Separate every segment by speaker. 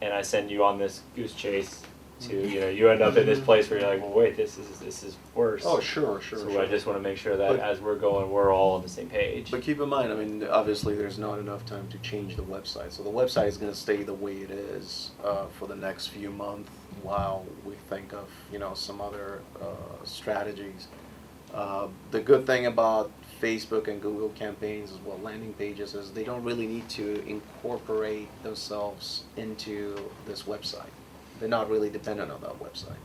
Speaker 1: and I send you on this goose chase to
Speaker 2: Mm-hmm.
Speaker 1: you know you end up in this place where you're like well wait this is this is worse.
Speaker 2: Oh, sure, sure,
Speaker 1: so
Speaker 2: sure.
Speaker 1: I just want to make sure that
Speaker 2: But-
Speaker 1: as we're going we're all on the same page.
Speaker 2: But keep in mind, I mean, obviously, there's not enough time to change the website, so the website is going to stay the way it is uh, for the next few months while we think of you know some other uh, strategies. Uh, the good thing about Facebook and Google campaigns as well landing pages is they don't really need to incorporate themselves into this website. They're not really dependent on that website.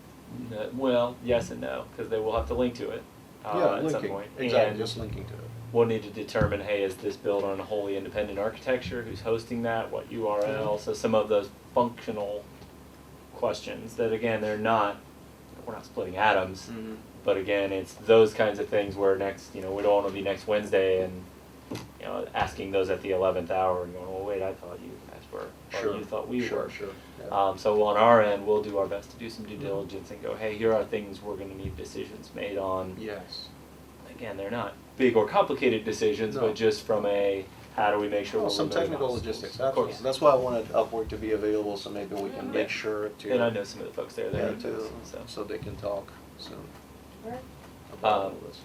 Speaker 1: Uh, well, yes and no because they will have to link to it uh, at
Speaker 2: linking
Speaker 1: some point.
Speaker 2: exactly,
Speaker 1: And
Speaker 2: just linking to it.
Speaker 1: we'll need to determine hey is this built on a wholly independent architecture who's hosting that what
Speaker 2: Mm-hmm.
Speaker 1: url so some of those functional questions that again they're not we're not splitting atoms
Speaker 2: Mm-hmm.
Speaker 1: but again it's those kinds of things where next you know we don't want to be next wednesday and you know asking those at the 11th hour and going well wait i thought you guys were or
Speaker 2: Sure.
Speaker 1: you thought we
Speaker 2: sure,
Speaker 1: were
Speaker 2: Sure. yeah. Mm-hmm.
Speaker 1: um, so on our end we'll do our best to do some due diligence and go hey here are things we're going to need decisions made on
Speaker 2: yes.
Speaker 1: again, they're not big or complicated decisions,
Speaker 2: No.
Speaker 1: but just from a how do we make sure
Speaker 2: Well,
Speaker 1: we're
Speaker 2: some
Speaker 1: removing
Speaker 2: technical
Speaker 1: obstacles.
Speaker 2: logistics,
Speaker 1: Of
Speaker 2: absolutely.
Speaker 1: course.
Speaker 2: That's why I wanted Upwork to be available, so maybe we can
Speaker 1: Yeah.
Speaker 2: make sure
Speaker 1: And I
Speaker 2: to,
Speaker 1: know some of the folks there that
Speaker 2: yeah,
Speaker 1: are into
Speaker 2: to,
Speaker 1: this, so
Speaker 2: so they can talk soon
Speaker 3: Right.
Speaker 2: about all
Speaker 1: Um,
Speaker 2: this.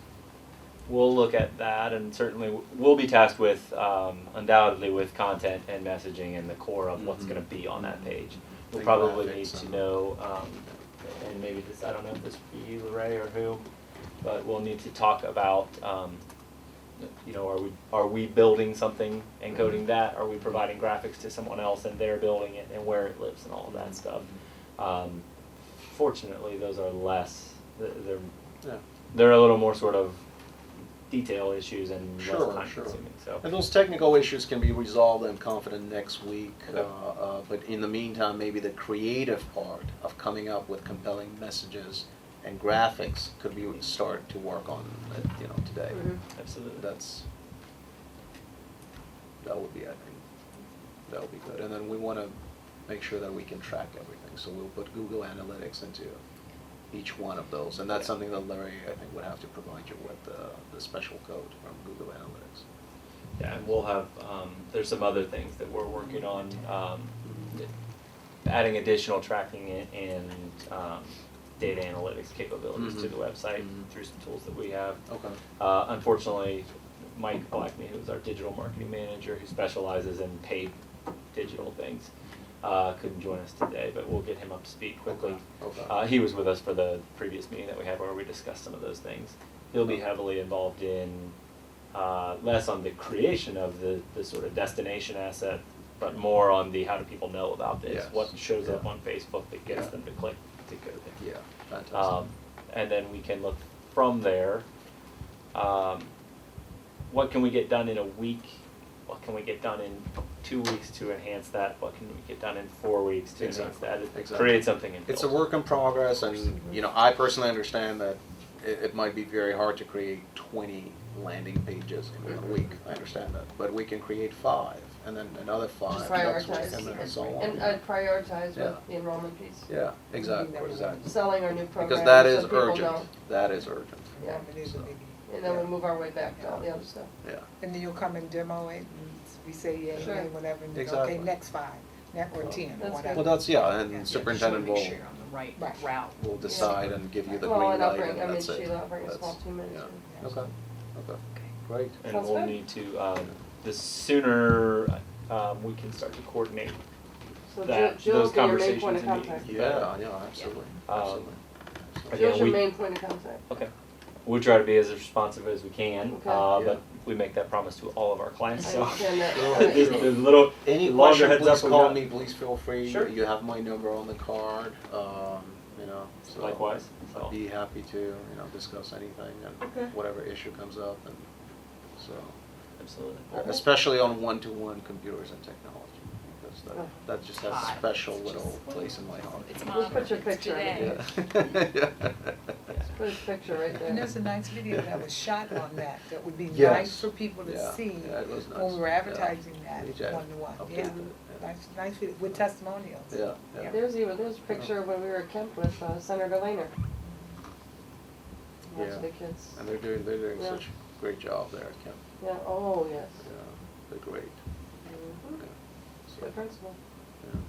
Speaker 1: we'll look at that, and certainly w- we'll be tasked with um, undoubtedly with content and messaging and the core of what's
Speaker 2: Mhm.
Speaker 1: going to be on that page. We'll
Speaker 2: Big
Speaker 1: probably
Speaker 2: graphics
Speaker 1: need to
Speaker 2: and-
Speaker 1: know, um, and maybe this I don't know if this would be you, Lorray, or who, but we'll need to talk about. Um, you know, are we are we building something and
Speaker 2: Mm-hmm.
Speaker 1: coding that? Are we providing graphics to someone else and they're building it and where it lives and all of
Speaker 2: Mm-hmm.
Speaker 1: that stuff? Um, fortunately, those are less. th- They're
Speaker 2: Yeah.
Speaker 1: they're a little more sort of detail issues and
Speaker 2: Sure,
Speaker 1: less time
Speaker 2: sure.
Speaker 1: consuming. So
Speaker 2: And those technical issues can be resolved, I'm confident, next week.
Speaker 1: Okay.
Speaker 2: Uh, uh, But in the meantime, maybe the creative part of coming up with compelling messages and graphics could be start to work on, uh, you know, today.
Speaker 1: absolutely.
Speaker 2: That's, that would be, I think, that would be good. And then we want to make sure that we can track everything, so we'll put Google Analytics into each one of those. And that's something that Larry, I think, would have to provide you with, uh, the special code from Google Analytics.
Speaker 1: Yeah, and we'll have um, there's some other things that we're working on, um, adding additional tracking and, and um, data analytics capabilities to
Speaker 2: Mhm.
Speaker 1: the website
Speaker 2: Mhm.
Speaker 1: through some tools that we have.
Speaker 2: Okay.
Speaker 1: Uh, unfortunately, Mike Blackney, who's our digital marketing manager, who specializes in paid digital things, uh, couldn't join us today, but we'll get him up to speed quickly.
Speaker 2: Okay, okay.
Speaker 1: Uh, he was with us for the previous meeting that we had where we discussed some of those things. He'll be heavily involved in, uh, less on the creation of the, the sort of destination asset, but more on the how do people know about this?
Speaker 2: Yes.
Speaker 1: What shows up
Speaker 2: Yeah.
Speaker 1: on Facebook that gets
Speaker 2: Yeah.
Speaker 1: them to click to go there?
Speaker 2: Yeah, fantastic.
Speaker 1: Um, and then we can look from there. Um, what can we get done in a week? What can we get done in two weeks to enhance that? What can we get done in four weeks to
Speaker 2: Exactly,
Speaker 1: enhance that?
Speaker 2: exactly.
Speaker 1: Create something and
Speaker 2: It's a
Speaker 1: build.
Speaker 2: work in progress, and, you know, I personally understand that it, it might be very hard to create twenty landing pages in one week, I understand that. But we can create five, and then another five
Speaker 3: Just
Speaker 2: next week,
Speaker 3: prioritize
Speaker 2: and then
Speaker 3: and-
Speaker 2: so on.
Speaker 3: And uh, I'd prioritize
Speaker 2: Yeah.
Speaker 3: with the enrollment piece.
Speaker 2: Yeah, exactly, exactly.
Speaker 3: Selling our new programs
Speaker 2: Because
Speaker 3: so
Speaker 2: that is
Speaker 3: people
Speaker 2: urgent,
Speaker 3: don't-
Speaker 2: that is urgent,
Speaker 3: Yeah,
Speaker 4: Yeah, it is a
Speaker 2: So.
Speaker 4: biggie.
Speaker 3: and then we move our way back to all the other stuff.
Speaker 2: yeah.
Speaker 4: And then you'll come and demo it, and we say, yeah,
Speaker 3: Sure.
Speaker 4: yeah, whatever, and
Speaker 2: Exactly.
Speaker 4: okay, next five, next or ten, or
Speaker 3: That's
Speaker 4: whatever.
Speaker 3: good.
Speaker 2: Well, that's, yeah,
Speaker 4: Yeah,
Speaker 2: and
Speaker 4: just
Speaker 2: superintendent will,
Speaker 5: Make sure you're on the right
Speaker 4: Right.
Speaker 5: route.
Speaker 2: will decide and give you the green
Speaker 3: Well, and I'll
Speaker 2: light,
Speaker 3: bring, I
Speaker 2: and
Speaker 3: mean,
Speaker 2: that's it.
Speaker 3: Sheila, I'll bring a
Speaker 2: That's-
Speaker 3: small team in
Speaker 2: yeah.
Speaker 3: too.
Speaker 2: Okay, okay, great.
Speaker 1: And
Speaker 3: Sounds
Speaker 1: we'll
Speaker 3: good.
Speaker 1: need to, um, the sooner, um, we can start to coordinate
Speaker 3: So Jill,
Speaker 1: that,
Speaker 3: Jill
Speaker 1: those
Speaker 3: will be your main
Speaker 1: conversations
Speaker 3: point of
Speaker 1: and meetings,
Speaker 3: contact.
Speaker 1: the better.
Speaker 2: Yeah, yeah, absolutely,
Speaker 1: Um,
Speaker 2: absolutely.
Speaker 1: Again,
Speaker 3: Jill's your
Speaker 1: we-
Speaker 3: main point of contact.
Speaker 1: Okay. We'll try to be as responsive as we can,
Speaker 3: Okay.
Speaker 1: uh,
Speaker 2: Yeah.
Speaker 1: but we make that promise to all of our clients,
Speaker 3: I
Speaker 1: so.
Speaker 3: understand that.
Speaker 2: Sure,
Speaker 1: This-
Speaker 2: sure.
Speaker 1: this little,
Speaker 2: Any
Speaker 1: longer
Speaker 2: question,
Speaker 1: heads up
Speaker 2: please
Speaker 1: we
Speaker 2: call
Speaker 1: got.
Speaker 2: me, please feel free.
Speaker 1: Sure.
Speaker 2: You have my number on the card, um, you know, so.
Speaker 1: Likewise, so.
Speaker 2: I'd be happy to, you know, discuss anything
Speaker 3: Okay.
Speaker 2: and whatever issue comes up and so.
Speaker 1: absolutely.
Speaker 2: Especially on one-to-one computers and technology, because
Speaker 3: Oh.
Speaker 2: that, that just has a
Speaker 5: Hot.
Speaker 2: special
Speaker 5: It's
Speaker 2: little
Speaker 5: just-
Speaker 2: place in my heart.
Speaker 5: It's
Speaker 3: We'll
Speaker 5: modern,
Speaker 3: put your
Speaker 5: it's
Speaker 3: picture in it.
Speaker 5: today.
Speaker 2: Yeah. Yeah.
Speaker 3: Put his picture right
Speaker 4: And
Speaker 3: there.
Speaker 4: there's a nice video that was shot on that, that would be
Speaker 2: Yes.
Speaker 4: nice for people
Speaker 2: Yeah,
Speaker 4: to see
Speaker 2: yeah, it was
Speaker 4: when
Speaker 2: nice.
Speaker 4: we were
Speaker 2: Yeah.
Speaker 4: advertising
Speaker 2: We
Speaker 4: that
Speaker 2: just
Speaker 4: one to one,
Speaker 2: updated
Speaker 4: yeah.
Speaker 2: it, yeah.
Speaker 4: Nice, nice, video with testimonials.
Speaker 2: Yeah, yeah.
Speaker 3: There's even, there's a picture when we were at Kemp with uh, Senator Laner.
Speaker 2: Yeah.
Speaker 3: Watch the kids.
Speaker 2: And they're doing, they're doing
Speaker 3: Yeah.
Speaker 2: such a great job there at Kemp,
Speaker 3: Yeah, oh, yes.
Speaker 2: yeah, they're great,
Speaker 3: Mhm.
Speaker 2: yeah. So,
Speaker 3: The principal.
Speaker 2: yeah.